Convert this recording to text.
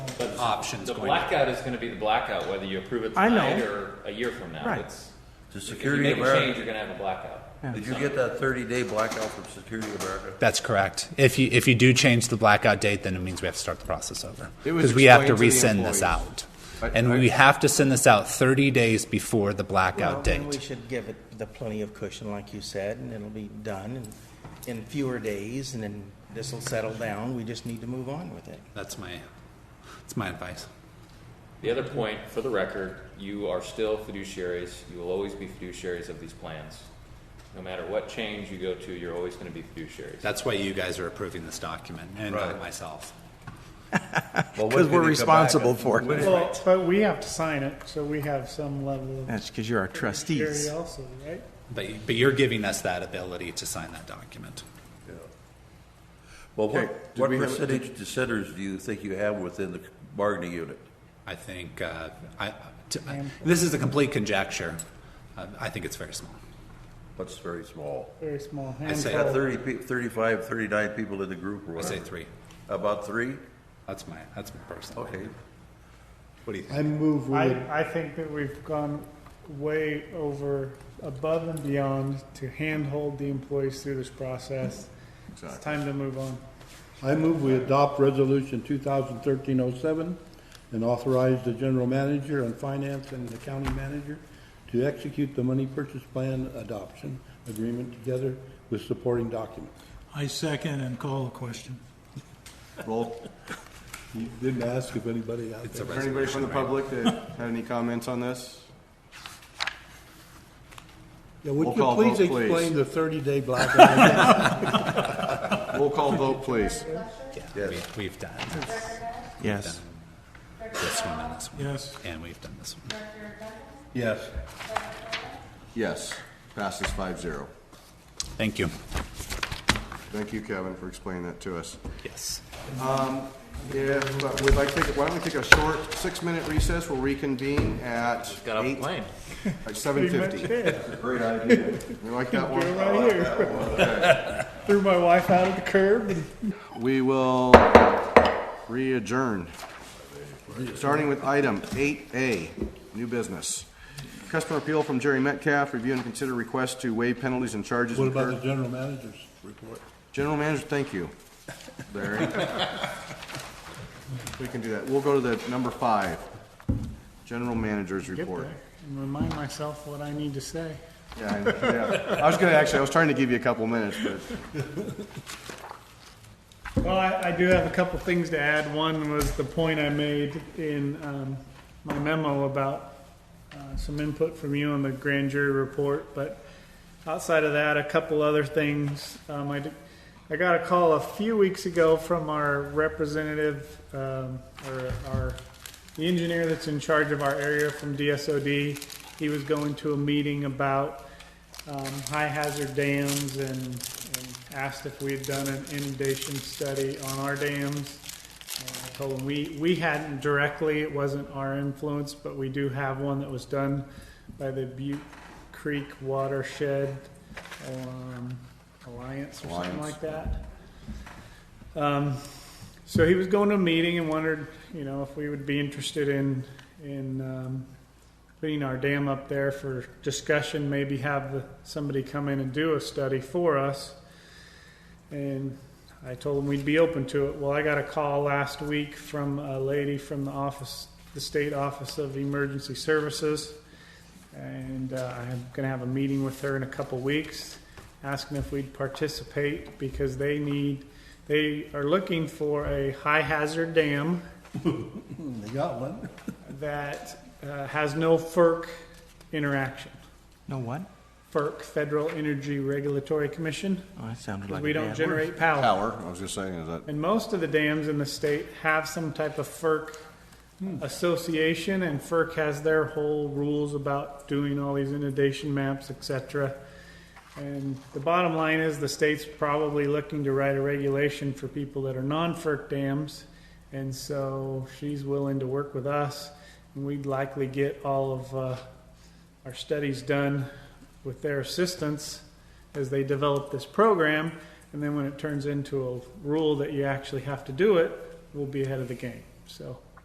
options The going. blackout is going to be the blackout, whether you approve it I know. tonight or a year from now. Right. It's- To If you Security make a change, America, you're going to have a blackout. did you get that thirty-day blackout from Security America? That's correct. If you, if you do change the blackout date, then it means we have to start the process over. It was Because we have to explained to the resend this employees. out. I- And I- we have to send this out 30 days before the Well, blackout then we date. should give it the plenty of cushion, like you said, and it'll be done in- in fewer days, and then this'll settle down. We just need to move on with it. That's my, that's my advice. The other point, for the record, you are still fiduciaries. You will always be fiduciaries of these plans. No matter what change you go to, you're always going to be fiduciaries. That's why you guys are approving this document and Right. not myself. Well, when did Because we're it come back? responsible for it. When- Well, but we have to sign it, so we have some level of That's because you're our security trustees. also, right? But, you- but you're giving us that ability to sign that document. Well, what, Okay, did what we have- percentage dissenters do you think you have within the bargaining unit? I think, uh, I, to- I- this is a complete conjecture. Uh, I think it's very small. That's very small. Very small I say- Got handful. 30, pe- 35, 39 people in the group or I say whatever. three. About three? That's my, that's my personal. Okay. What do you think? I move we would, I, I think that we've gone way over, above and beyond to handhold the employees through this process. It's time to move on. I move we adopt resolution 2013-07 and authorize the general manager and finance and the county manager to execute the money purchase plan adoption agreement together with supporting documents. I second and call the question. Roll. You didn't ask if anybody out It's a there. Is there anybody resolution, from the right? public that had any comments on this? Yeah, would Roll you call please vote, please. explain the 30-day blackout? Roll call vote, please. Yeah, we, we've done this, Yes. this one and this one. Yes. And we've done this one. Yes. Yes. Passes five zero. Thank you. Thank you, Kevin, for explaining that to us. Yes. Yeah, but we'd like to, take- why don't we take a short six-minute recess? We'll reconvene at Got off the eight, plane. at seven Pretty much fifty. did. Great idea. You like that one? Go right here. Threw my wife out of the curb and We will re-adjourn, starting with item eight A, new business. Customer appeal from Jerry Metcalf, review and consider request to waive penalties and charges What about the incurred. general manager's report? General manager, thank you, Larry. We can do that. We'll go to the number five, general manager's get report. there and remind myself what I need to say. Yeah, I- yeah. I was gonna, actually, I was trying to give you a couple minutes, but Well, I, I do have a couple things to add. One was the point I made in um, my memo about uh, some input from you on the grand jury report. But outside of that, a couple other things. Um, I, did- I got a call a few weeks ago from our representative um, or our the engineer that's in charge of our area from DSOD. He was going to a meeting about um, high hazard dams and, and asked if we had done an inundation study on our dams. And I told him we, we hadn't directly, it wasn't our influence, but we do have one that was done by the Butte Creek Watershed um, Alliance or something Alliance. like that. Um, so he was going to a meeting and wondered, you know, if we would be interested in in um, putting our dam up there for discussion. Maybe have the, somebody come in and do a study for us. And I told him we'd be open to it. Well, I got a call last week from a lady from the office, the state office of emergency services, and uh, I'm going to have a meeting with her in a couple weeks, asking if we'd participate because they need. They are looking for a high hazard dam They got one. that uh, has no FERC interaction. No what? FERC, Federal Energy Regulatory Commission, Oh, that sounded 'cause like we a don't bad generate power. power, I was just saying, is that, And most of the dams in the state have some type of FERC Hmm. association, and FERC has their whole rules about doing all these inundation maps, et cetera. And the bottom line is the state's probably looking to write a regulation for people that are non-FERC dams. And so she's willing to work with us, and we'd likely get all of uh, our studies done with their assistance as they develop this program. And then when it turns into a rule that you actually have to do it, we'll be ahead of the game. So